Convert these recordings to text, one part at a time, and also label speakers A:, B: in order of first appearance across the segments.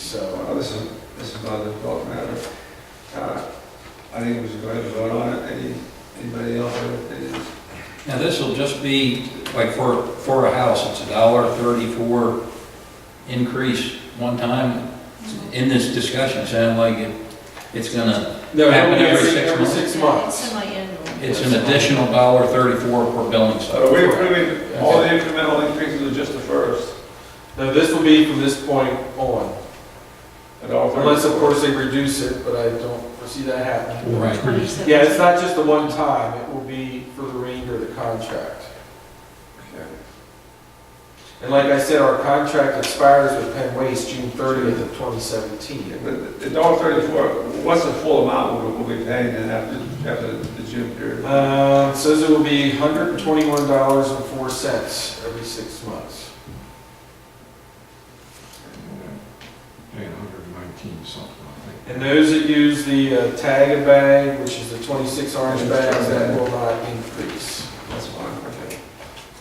A: So,
B: Well, uh, this is, this is not a adult matter. Uh, I think we should go ahead and vote on it. Any, anybody else have opinions?
C: Now, this will just be, like, for, for a house, it's a dollar thirty-four increase one time. In this discussion, it sounded like it, it's gonna,
A: no,
C: Happen
A: every,
C: every six
A: every
C: months.
A: six
D: It's
A: months.
D: semi-annual.
C: it's an additional dollar thirty-four per billing
B: So
C: cycle.
B: we're approving, all the incremental increases are just the first.
A: No, this will be from this point on,
B: at all.
A: unless of course they reduce it, but I don't foresee that happening.
C: Right.
A: Yeah, it's not just the one time, it will be for the remainder of the contract.
B: Okay.
A: And like I said, our contract expires with Penn Waste June thirtieth of twenty seventeen.
B: But the dollar thirty-four, what's the full amount we'll, we'll be paying then after, after the June period?
A: Uh, it says it will be hundred and twenty-one dollars and four cents every six months.
E: Paying hundred and nineteen something, I think.
A: And those that use the uh, tag a bag, which is the twenty-six orange bags, that will not increase.
B: That's fine, okay.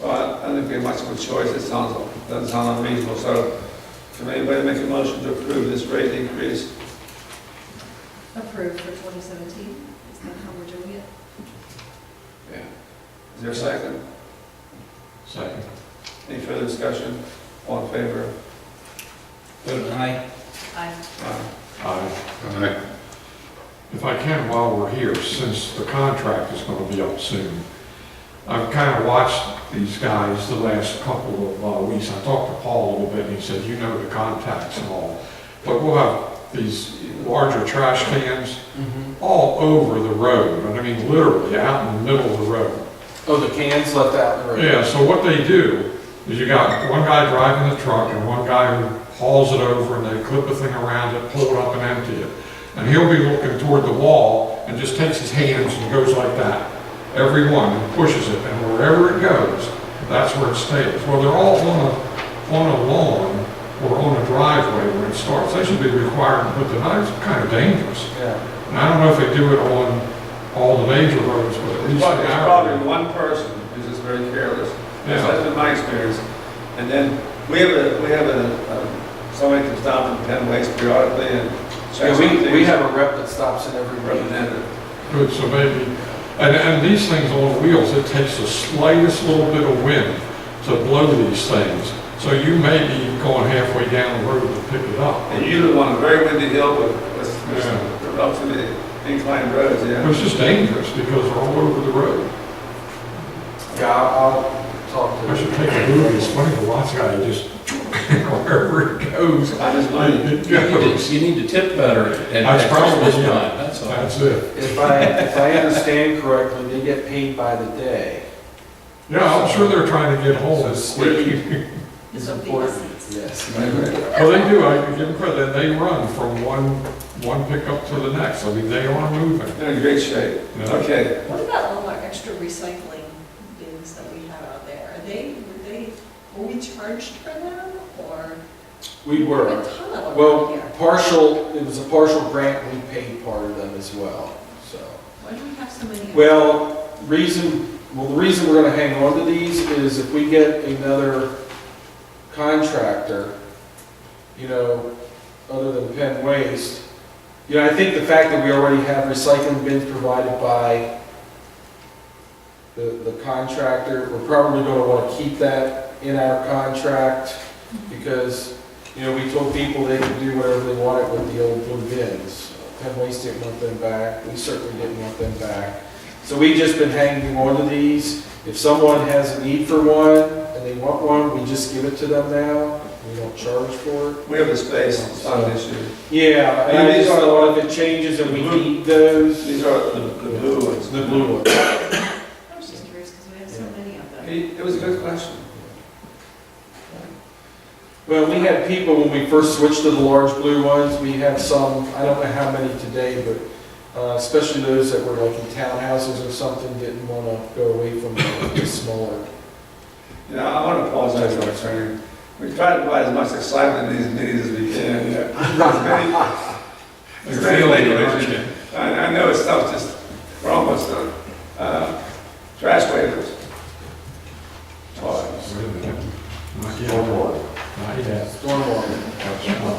B: Well, I- I think we have much of a choice, it sounds, doesn't sound unreasonable, so can anybody make a motion to approve this rate increase?
D: Approved for 2017, is that how we're doing it?
B: Yeah. Is there a second?
E: Second.
B: Any further discussion? All in favor?
C: Vote aye.
D: I,
B: Aye.
E: Aye. If I can, while we're here, since the contract is gonna be up soon, I've kind of watched these guys the last couple of uh, weeks. I talked to Paul a little bit, and he said, you know the contacts and all. But we'll have these larger trash cans all over the road, and I mean literally out in the middle of the road.
A: Oh, the cans left out in the road?
E: Yeah, so what they do is you got one guy driving the truck and one guy who hauls it over and they clip a thing around it, pull it up and empty it. And he'll be looking toward the wall and just takes his hands and goes like that. Every one and pushes it and wherever it goes, that's where it stays. Well, they're all on a, on a lawn or on a driveway where it starts. They should be required to put the knives, kind of dangerous.
A: Yeah.
E: And I don't know if they do it on all the major roads, but at
B: There's
E: least.
B: probably-
E: in
B: there's
E: our-
B: probably one person who's just very careless. That's
E: Yeah.
B: that's been my experience. And then we have a, we have a, um, somebody comes down from Penn Waste periodically and
A: Yeah,
B: checks.
A: we, we have a rep that stops in every road.
B: Representative.
E: Good, so maybe, and, and these things on wheels, it takes the slightest little bit of wind to blow these things. So you may be going halfway down the road to pick it up.
B: And you live on a very windy hill with, with, with
E: Yeah.
B: up to the inclined roads,
E: It
B: yeah.
E: was just dangerous because they're all over the road.
A: Yeah, I'll I'll talk to
E: I
A: them.
E: should take a movie, it's funny, the watch guy just, wherever it goes,
B: I just mind
E: it
C: You need
E: goes.
C: to, you need to tip better at,
E: That's
C: at all this
E: probably, yeah.
C: time, that's all.
E: That's it.
A: If I, if I understand correctly, they get paid by the day.
E: Yeah, I'm sure they're trying to get home
A: So
E: as quick.
A: speed
D: It's
A: is
D: of the
A: important.
D: essence.
A: Yes.
E: Well, they do, I give them credit, they run from one, one pickup to the next. I mean, they are moving.
B: They're in great shape.
E: you know?
B: Okay,
D: What about all our extra recycling bins that we have out there? Are they, were they, were we charged for them, or?
A: We
D: A
A: were.
D: ton of them out
A: Well,
D: here.
A: partial, it was a partial grant, we paid part of them as well, so.
D: Why do we have so many?
A: Well, reason, well, the reason we're gonna hang on to these is if we get another contractor, you know, other than Penn Waste, you know, I think the fact that we already have recycling bins provided by the, the contractor, we're probably gonna wanna keep that in our contract because, you know, we told people they could do whatever they wanted with the old blue bins. Penn Waste didn't want them back, we certainly didn't want them back. So we've just been hanging on to these. If someone has a need for one and they want one, we just give it to them now, we don't charge for it.
B: we have the space, it's not an issue.
A: Yeah, and I just thought if it changes and we need those,
B: These are the, the blue ones.
A: the blue ones.
D: I was just curious, because we have so
A: Yeah.
D: many of them.
B: He- It was a good question.
A: Well, we had people, when we first switched to the large blue ones, we had some, I don't know how many today, but uh, especially those that were like in townhouses or something, didn't want to go away from the smaller.
B: You know, I want to apologize to our attorney. We try to provide as much excitement in these meetings as we can. As many- as many regulations. I, I know it's stuff just, we're almost done. Uh, Trash waivers. Toys.
E: Not yet. Not yet.
A: Stormwater.
E: That's not-